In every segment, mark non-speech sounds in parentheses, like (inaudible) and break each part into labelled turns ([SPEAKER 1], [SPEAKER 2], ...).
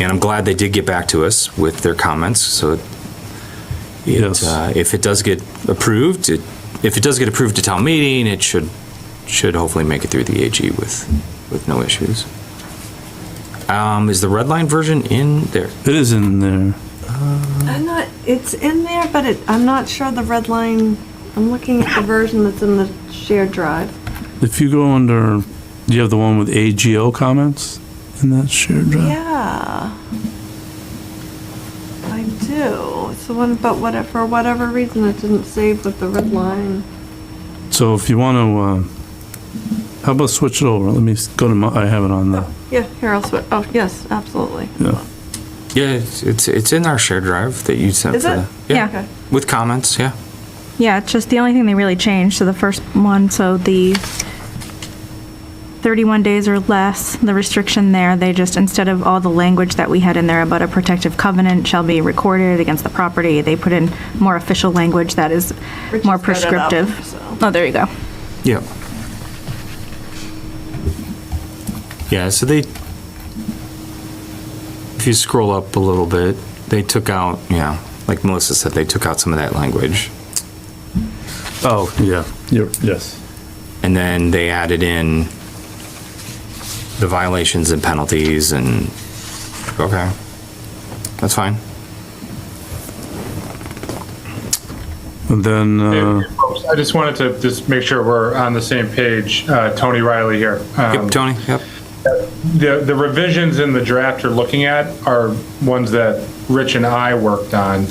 [SPEAKER 1] And I'm glad they did get back to us with their comments, so it,
[SPEAKER 2] Yes.
[SPEAKER 1] uh, if it does get approved, it- if it does get approved to town meeting, it should, should hopefully make it through the AG with, with no issues. Um, Is the red line version in there?
[SPEAKER 2] It is in there.
[SPEAKER 3] I'm not, it's in there, but it, I'm not sure the red line, I'm looking at the version that's in the shared drive.
[SPEAKER 2] If you go under, do you have the one with AGO comments in that shared drive?
[SPEAKER 3] Yeah. I do. It's the one, but whatever, for whatever reason, it didn't save with the red line.
[SPEAKER 2] So if you want to, uh, how about switch it over? Let me s- go to my, I have it on the,
[SPEAKER 3] Yeah, here, I'll switch. Oh, yes, absolutely.
[SPEAKER 2] yeah.
[SPEAKER 1] Yeah, it's- it's, it's in our shared drive that you sent.
[SPEAKER 3] Is
[SPEAKER 1] for
[SPEAKER 3] it?
[SPEAKER 1] the-
[SPEAKER 4] Yeah.
[SPEAKER 3] Okay.
[SPEAKER 1] With comments, yeah.
[SPEAKER 4] Yeah, it's just the only thing they really changed, so the first one, so the 31 days or less, the restriction there, they just, instead of all the language that we had in there about a protective covenant shall be recorded against the property, they put in more official language that is
[SPEAKER 3] Richard's got
[SPEAKER 4] more
[SPEAKER 3] it up,
[SPEAKER 4] prescriptive.
[SPEAKER 3] so.
[SPEAKER 4] Oh, there you go. (laughs)
[SPEAKER 1] Yeah. Yeah, so they, if you scroll up a little bit, they took out, yeah, like Melissa said, they took out some of that language.
[SPEAKER 2] Oh, yeah, you're, yes.
[SPEAKER 1] And then they added in the violations and penalties and, okay, that's fine.
[SPEAKER 2] And then, uh,
[SPEAKER 5] Hey, folks, I just wanted to just make sure we're on the same page. Uh, Tony Riley here. Um,
[SPEAKER 1] Yep, Tony, yep.
[SPEAKER 5] The the revisions in the draft you're looking at are ones that Rich and I worked on.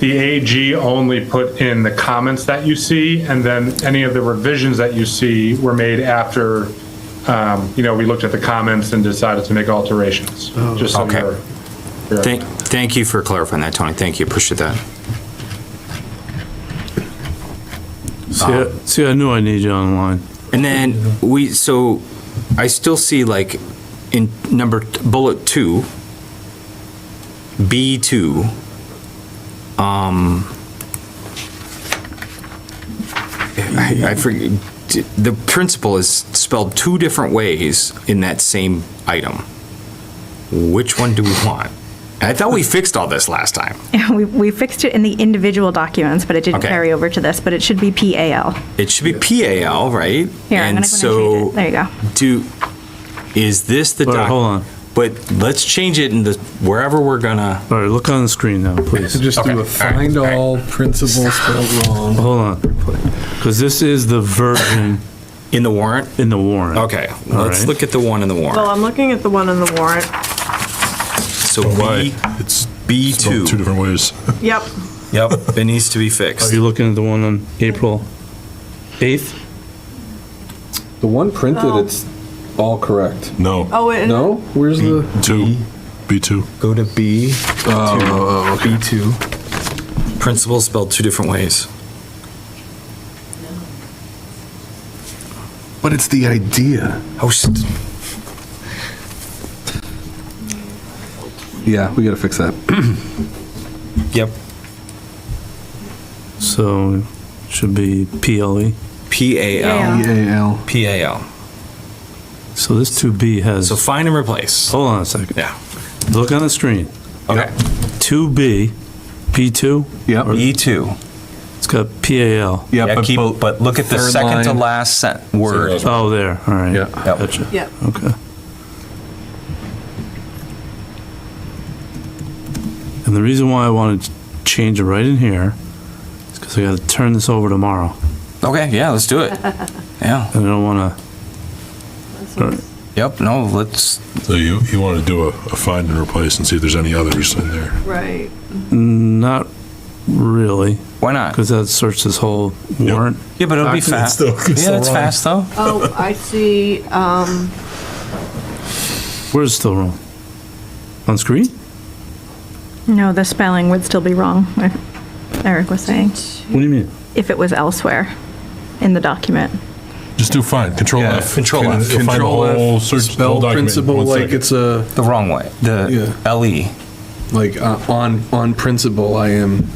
[SPEAKER 5] The AG only put in the comments that you see, and then any of the revisions that you see were made after, um, you know, we looked at the comments and decided to make alterations. Just so
[SPEAKER 1] Oh, Okay.
[SPEAKER 5] you're- you're-
[SPEAKER 1] Thank, thank you for clarifying that, Tony. Thank you, appreciate that.
[SPEAKER 2] see, I- see, I knew I need you online.
[SPEAKER 1] And then we, so I still see like in number, t- bullet two, B2, um, I, I forget, the principle is spelled two different ways in that same item. Which one do we want? I thought we fixed all this last time.
[SPEAKER 4] We, we fixed it in the individual documents, but it didn't
[SPEAKER 1] Okay.
[SPEAKER 4] carry over to this, but it should be PAL.
[SPEAKER 1] It should be PAL, right?
[SPEAKER 4] Here,
[SPEAKER 1] And
[SPEAKER 4] I'm gonna go and change
[SPEAKER 1] so
[SPEAKER 4] it. There you go.
[SPEAKER 1] do, is this the
[SPEAKER 2] All right,
[SPEAKER 1] doc-
[SPEAKER 2] hold on.
[SPEAKER 1] But let's change it in the, wherever we're gonna,
[SPEAKER 2] All right, look on the screen now, please.
[SPEAKER 6] Just
[SPEAKER 1] Okay,
[SPEAKER 6] do
[SPEAKER 1] all
[SPEAKER 6] a
[SPEAKER 1] right,
[SPEAKER 6] find
[SPEAKER 1] all right.
[SPEAKER 6] all principal spelled wrong.
[SPEAKER 2] Hold on, because this is the version
[SPEAKER 1] in the warrant?
[SPEAKER 2] in the warrant.
[SPEAKER 1] Okay,
[SPEAKER 2] All
[SPEAKER 1] let's
[SPEAKER 2] right.
[SPEAKER 1] look at the one in the
[SPEAKER 3] Well,
[SPEAKER 1] warrant.
[SPEAKER 3] I'm looking at the one in the warrant.
[SPEAKER 1] So B,
[SPEAKER 7] Why? It's spelled two
[SPEAKER 1] B2.
[SPEAKER 7] different ways.
[SPEAKER 3] Yep.
[SPEAKER 1] Yep, it needs to be
[SPEAKER 2] Are
[SPEAKER 1] fixed.
[SPEAKER 2] you looking at the one on April 8th?
[SPEAKER 6] The one printed,
[SPEAKER 3] No.
[SPEAKER 6] it's all correct.
[SPEAKER 7] No,
[SPEAKER 3] Oh, it,
[SPEAKER 6] No? Where's the?
[SPEAKER 7] two,
[SPEAKER 6] Hmm?
[SPEAKER 7] B2.
[SPEAKER 1] Go to B,
[SPEAKER 6] Oh,
[SPEAKER 1] B2. Principal spelled two different ways.
[SPEAKER 7] But it's the idea.
[SPEAKER 1] Oh, st-
[SPEAKER 6] Yeah, we gotta fix that.
[SPEAKER 1] yep,
[SPEAKER 2] So should be E. PLE.
[SPEAKER 1] PAL,
[SPEAKER 4] Yeah.
[SPEAKER 6] EAL.
[SPEAKER 1] PAL.
[SPEAKER 2] So this 2B has,
[SPEAKER 1] So find and replace.
[SPEAKER 2] hold on a second.
[SPEAKER 1] Yeah,
[SPEAKER 2] Look on the screen.
[SPEAKER 1] okay.
[SPEAKER 2] 2B, P2,
[SPEAKER 6] Yep.
[SPEAKER 1] E2.
[SPEAKER 2] it's got PAL.
[SPEAKER 1] Yeah, keep-
[SPEAKER 6] both-
[SPEAKER 1] But look at the
[SPEAKER 6] third
[SPEAKER 1] second to
[SPEAKER 6] line.
[SPEAKER 1] last sent word.
[SPEAKER 2] Oh, there, all right.
[SPEAKER 6] Yeah.
[SPEAKER 1] Yep.
[SPEAKER 2] Gotcha.
[SPEAKER 3] yeah.
[SPEAKER 2] Okay. And the reason why I wanted to change it right in here is because I gotta turn this over tomorrow,
[SPEAKER 1] Okay, yeah, let's do it. Yeah,
[SPEAKER 2] and I don't wanna,
[SPEAKER 3] This one's-
[SPEAKER 1] yep, no, let's,
[SPEAKER 7] So you, you want to do a, a find and replace and see if there's any others in there.
[SPEAKER 3] Right.
[SPEAKER 2] not really,
[SPEAKER 1] why not?
[SPEAKER 2] because that searched this whole warrant.
[SPEAKER 1] Yeah, but it'll be
[SPEAKER 7] It's
[SPEAKER 1] fast.
[SPEAKER 7] still- it's
[SPEAKER 1] Yeah,
[SPEAKER 7] still
[SPEAKER 1] it's
[SPEAKER 7] wrong.
[SPEAKER 1] fast though.
[SPEAKER 3] Oh, I see, um,
[SPEAKER 2] Where's still wrong? On screen?
[SPEAKER 4] No, the spelling would still be wrong, like Eric was saying,
[SPEAKER 2] What do you mean?
[SPEAKER 4] if it was elsewhere in the document.
[SPEAKER 7] Just do find, control
[SPEAKER 6] Yeah,
[SPEAKER 7] F.
[SPEAKER 1] control
[SPEAKER 7] Can-
[SPEAKER 1] F.
[SPEAKER 7] You'll find the
[SPEAKER 6] Control F,
[SPEAKER 7] whole search, the whole
[SPEAKER 6] Spell
[SPEAKER 7] document in
[SPEAKER 6] principal
[SPEAKER 7] one
[SPEAKER 6] like
[SPEAKER 7] second.
[SPEAKER 6] it's a,
[SPEAKER 1] The wrong way. The E. LE.
[SPEAKER 6] like, uh, on, on principle, I am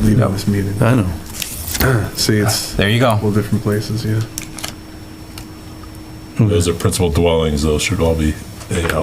[SPEAKER 6] leaving this meeting.
[SPEAKER 2] I know.
[SPEAKER 6] See, it's
[SPEAKER 1] There you
[SPEAKER 6] all
[SPEAKER 1] go.
[SPEAKER 6] different places, yeah.
[SPEAKER 7] Those are principal dwellings, those should all be AL.